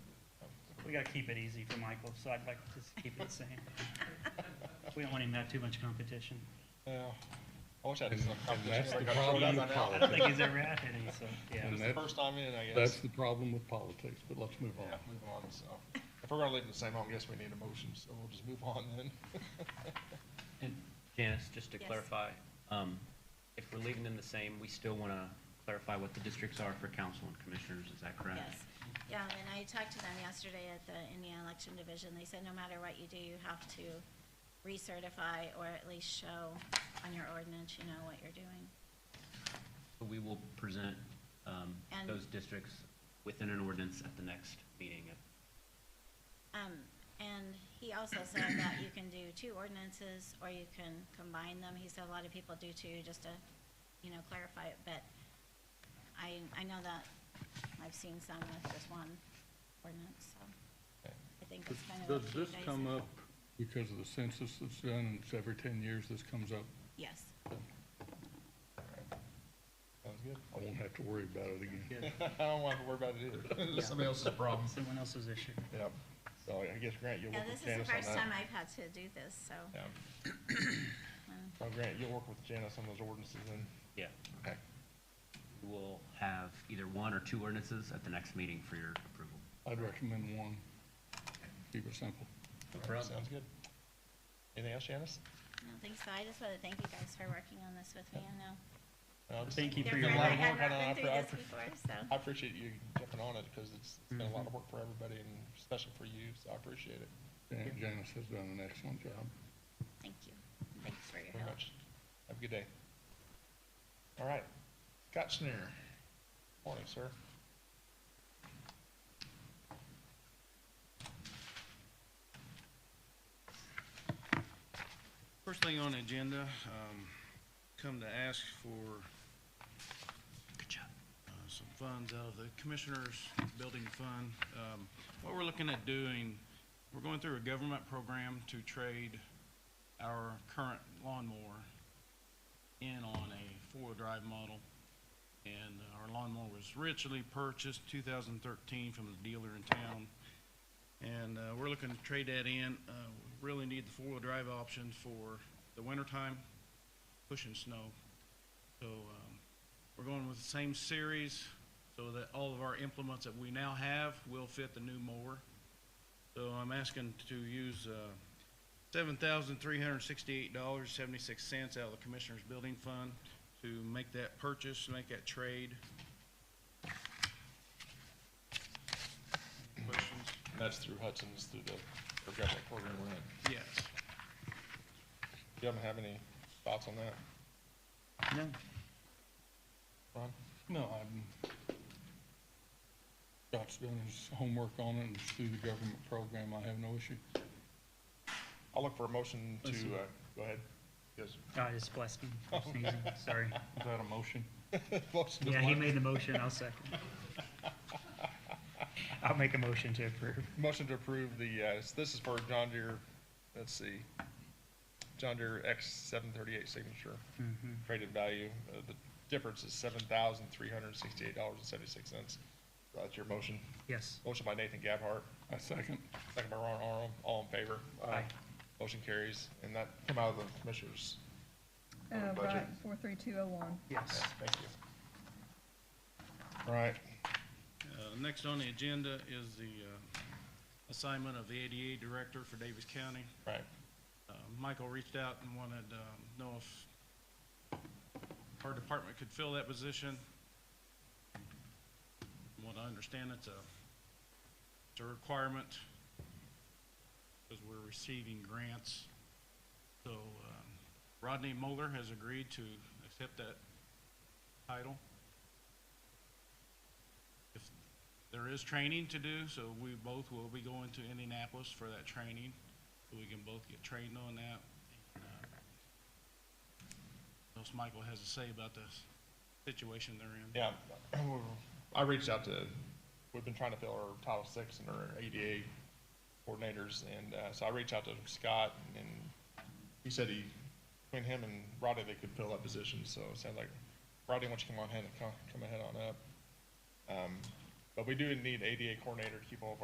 We gotta keep it easy for Michael, so I'd like to just keep it the same. We don't want him to have too much competition. Yeah. I wish I had some that's competition. I the got thrown problem out with by I now. don't think he's ever had any, so, yeah. And It's the that- first time in, I guess. That's the problem with politics, but let's move Yeah, on. move on, so. If we're gonna leave it the same, I guess we need a motion, so we'll just move on then. And Janice, just to Yes. clarify, um, if we're leaving them the same, we still want to clarify what the districts are for council and commissioners, is that correct? Yes, yeah, and I talked to them yesterday at the Indiana Election Division, they said no matter what you do, you have to recertify or at least show on your ordinance, you know, what you're doing. So We will present um, And- those districts within an ordinance at the next meeting. Um, and he also said that you can do two ordinances, or you can combine them, he said a lot of people do too, just to, you know, clarify it, but I, I know that I've seen some with just one ordinance, so I think it's kind of. Does up to you this guys. come up because of the census that's done, and it's every ten years this comes up? Yes. Sounds good. I won't have to worry about it again. Good. I don't want to worry about it either. It's somebody else's problem. Someone else's issue. Yeah. So I guess Grant, you'll Yeah, work this with is the Janice on that. first time I've had to do this, so, Um, Yeah. Oh, Grant, you'll work with Janice on those ordinances and, Yeah, okay, we'll have either one or two ordinances at the next meeting for your approval. I'd recommend one. Keep it simple. No sounds good. Anything else, Janice? I don't think so. I just want to thank you guys for working on this with me. I know. No, just- Thank you for It's your been a different. lot I of had work, I know, I not been appre- I through this appre- before, I so. appreciate you jumping on it, because it's it's been a lot of work for everybody, and especially for you, so I appreciate it Jan- Janice has done an excellent job. Thank you. Thanks for your very help. much. Have a good day. All right, Scott Schneer. Morning, sir. First thing on the agenda, um, come to ask for Good job. uh, some funds out of the Commissioners Building Fund. Um, What we're looking at doing, we're going through a government program to trade our current lawnmower in on a four-wheel drive model. And our lawnmower was richly purchased 2013 from the dealer in town. And uh, we're looking to trade that in. Uh, We Really need the four-wheel drive option for the wintertime, pushing snow. So um, we're going with the same series so that all of our implements that we now have will fit the new mower. So I'm asking to use uh, $7,368.76 out of the Commissioners Building Fund to make that purchase, make that trade. Questions? And That's through Hudson's, through the our government program we're in. Yes. Do you have any thoughts on that, No. Ron? No, I'm, Scott's done his homework on it, and it's through the government program, I have no issue. I'll look for a motion to, Listen. uh, go ahead. Yes. Oh, I just blessed him. for sneezing. Sorry. Is that a motion? Motion to Yeah, he what? made the motion, I'll second. I'll make a motion to approve. Motion to approve the, uh, s- this is for John Deere, let's see, John Deere X seven thirty-eight signature. Mm-hmm. Traded value, uh, the difference is seven thousand three hundred and sixty-eight dollars and seventy-six cents. That's your motion. Yes. Motion by Nathan Gabhart, I second. second by Ron Aron, all in favor? Aye. Motion carries, and that come out of the commissioners. Uh, Uh, budget. right, four three two oh one. Yes. Thank you. All right, Uh, Next on the agenda is the uh, assignment of the ADA Director for Davis County. right. Uh, Michael reached out and wanted to know if our department could fill that position. From what I understand, it's a, it's a requirement because we're receiving grants. So um, Rodney Moeller has agreed to accept that title. If there is training to do, so we both will be going to Indianapolis for that training. so We can both get trained on that. And, uh, what Else Michael has to say about the situation they're in. Yeah, I reached out to, we've been trying to fill our Title VI and our ADA coordinators, and, uh, so I reached out to Scott, and he said he, between him and Rodney, they could fill that position, so it sounds like, Rodney, why don't you come on ahead and come, come ahead on up? Um, but we do need ADA coordinator to keep all of our